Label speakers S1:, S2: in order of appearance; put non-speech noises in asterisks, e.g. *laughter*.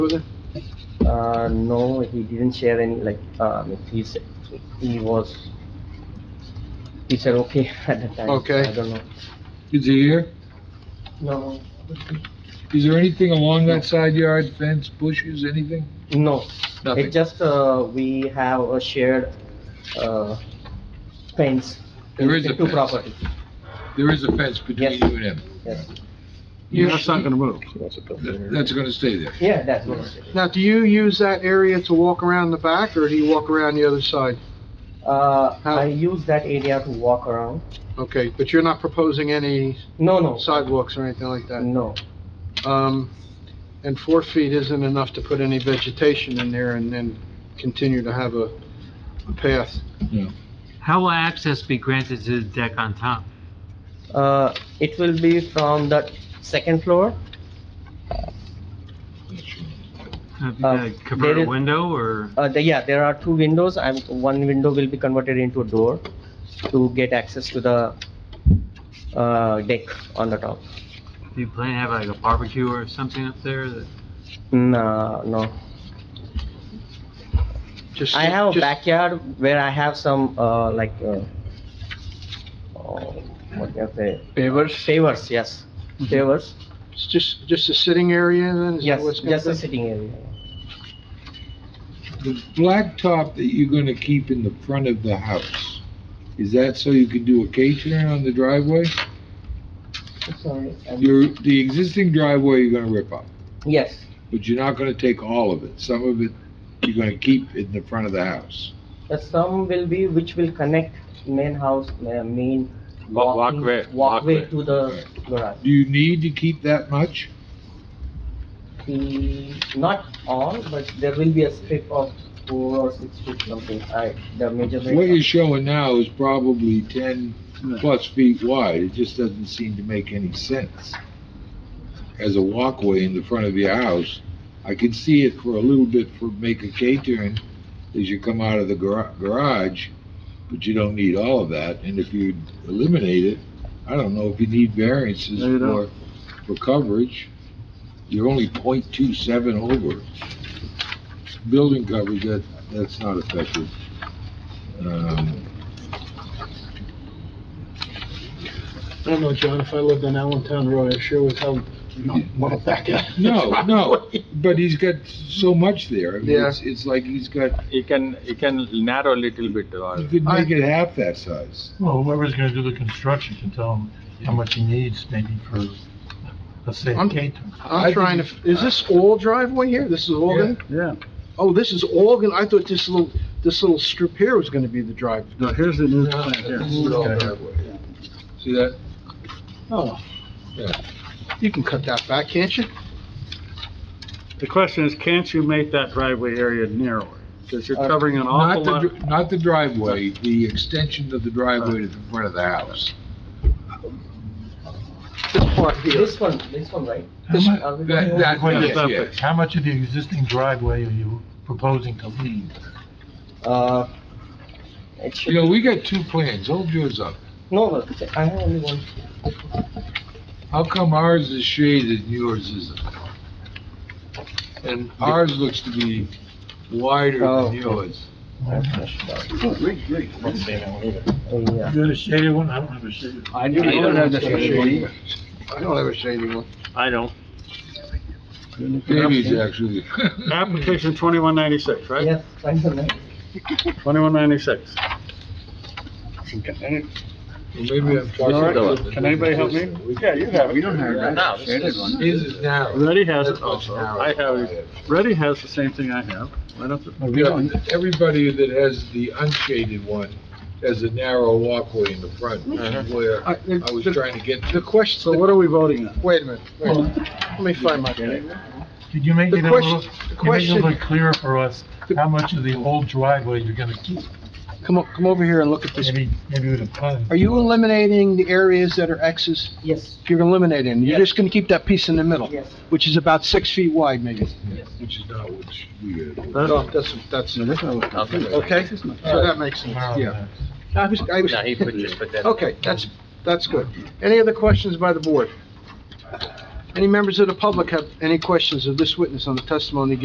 S1: Uh, no, he didn't share any, like, um, he said, he was, he said okay *laughs* at the time.
S2: Okay.
S1: I don't know.
S2: Is he here?
S1: No,
S2: Is there anything along that side yard, fence, bushes, anything?
S1: no. It
S2: Nothing.
S1: just, uh, we have a shared, uh, fence. in
S2: There is a
S1: the Two
S2: fence.
S1: property,
S2: There is a fence between
S1: Yes.
S2: you and him.
S1: yes.
S3: Yeah, that's not gonna move.
S2: Th- That's gonna stay there.
S1: Yeah, that's what I said.
S3: Now, do you use that area to walk around the back, or do you walk around the other side?
S1: Uh,
S3: How-
S1: I use that area to walk around.
S3: Okay, but you're not proposing any
S1: No, no,
S3: sidewalks or anything like
S2: Uh,
S3: that?
S1: no, Mm.
S3: Um, and four feet isn't enough to put any vegetation in there and then continue to have a, a path.
S4: How will access be granted to the deck on top?
S1: uh, it will be from the second floor.
S4: Uh,
S1: Uh,
S4: Convert
S1: there
S4: a
S1: is-
S4: window or?
S1: Uh, the, yeah, there are two windows, I'm, one window will be converted into a door to get access to the, uh, deck on the top.
S4: Do you plan to have like a barbecue or something up there? that-
S1: No, Mm, uh, no,
S3: Just-
S1: I have a
S3: just-
S1: backyard where I have some, uh, like, uh, oh, what can I say?
S2: Favors?
S1: Favors, yes, favors,
S3: It's Just, just a sitting area then? Is Mm-hmm. that
S1: yes,
S3: what's gonna
S1: just a
S3: be?
S1: sitting area.
S2: The blacktop that you're gonna keep in the front of the house, is that so you can do a K-turn on the driveway?
S1: Sorry.
S2: Your, the existing driveway you're gonna rip up,
S1: Yes,
S2: but you're not gonna take all of it. Some of it you're gonna keep in the front of the house.
S1: The sum will be which will connect main house, uh, main
S5: Wa-
S1: walking-
S5: walkway,
S1: walkway
S5: walkway.
S1: to the garage.
S2: Do you need to keep that much?
S1: Mm, Not all, but there will be a strip of four or six feet something, I, the measurement.
S2: What you're showing now is probably ten plus feet wide, it just doesn't seem to make any sense. As a walkway in the front of your house, I can see it for a little bit for, make a K-turn as you come out of the gar- garage, but you don't need all of that, and if you eliminate it, I don't know if you need variances
S3: No, you
S2: for,
S3: don't.
S2: for coverage. You're only point two seven over. Building coverage, that, that's not effective. Um,
S3: I don't know, John, if I lived on Allentown Road, I sure would hell not want to back out.
S2: No, no, but he's got so much there. I mean,
S3: Yeah.
S2: It's, it's like he's got,
S5: You can, you can narrow a little bit uh, or.
S2: you could
S3: I-
S2: make it half that size.
S6: Well, whoever's gonna do the construction can tell him how much he needs, maybe for, let's say,
S3: I'm-
S6: K.
S3: I'm trying to, f- is this all driveway here? This is all
S6: Yeah.
S3: gonna? Yeah. Oh, this is all gonna, I thought this little, this little strip here was gonna be the drive.
S7: No, here's the new
S2: This
S7: plan
S2: is all
S7: here.
S2: driveway. See that?
S3: Oh.
S2: Yeah.
S3: You can cut that back, can't you?
S7: The question is, can't you make that driveway area narrower? Because
S6: Uh,
S7: you're covering an
S2: Not
S7: awful
S2: the,
S7: lot.
S2: dr- not the driveway, the extension of the driveway to the front of the house.
S3: This part here.
S1: This one, this one, right?
S6: How mu-
S1: Are we
S2: That-
S1: going-
S2: that-
S6: Wait,
S2: yes,
S6: stop
S2: yes.
S6: it. How much of the existing driveway are you proposing to leave?
S1: Uh, it
S2: You
S1: should,
S2: know, we got two plans, hold yours up.
S1: no, no, I have only one.
S2: How come ours is shaded and yours isn't? And ours looks to be wider
S1: Oh.
S2: than yours.
S1: Oh, Yeah,
S6: You got a shaded one? I don't have a shaded.
S7: I
S3: don't have the
S7: shading.
S3: I don't have a shady one.
S7: I don't.
S2: Babies, actually.
S7: Application twenty-one ninety-six, right?
S1: yes, thank you, ma'am.
S7: Twenty-one ninety-six.
S2: Maybe I'm talking about it.
S7: Can anybody help me? Yeah, you have
S3: We don't have that shaded
S2: His is narrow.
S7: Reddy has it
S2: That's much
S7: also.
S2: narrower.
S7: I have, it. Reddy has the same thing I have. Why don't the-
S2: Yeah, everybody that has the unshaded one has a narrow walkway in the front, which
S7: Uh-huh.
S2: is where
S3: I- the-
S2: I was
S3: the-
S2: trying to get
S3: The
S2: to.
S3: question,
S7: So what are we voting on?
S3: wait a minute, wait a minute. Let me find my paper.
S6: Could you make
S3: The
S6: it a
S3: question-
S6: little, can you make it
S3: the
S6: a
S3: question-
S6: little clearer for us how much of the old driveway you're gonna keep?
S3: Come, o- come over here and look at this.
S6: Maybe, maybe with a pun.
S3: Are you eliminating the areas that are X's?
S1: Yes,
S3: If you're eliminating,
S1: Yes.
S3: you're just gonna keep that piece in the middle,
S1: yes,
S3: which is about six feet wide, maybe.
S1: yes.
S2: Which is not what we had.
S3: No, that's, that's, okay, so that makes sense.
S6: Tomorrow,
S2: Yeah.
S6: uh,
S3: I was, I was, *laughs* okay, that's, that's good. Any other questions by the board? Any members of the public have any questions of this witness on the testimony given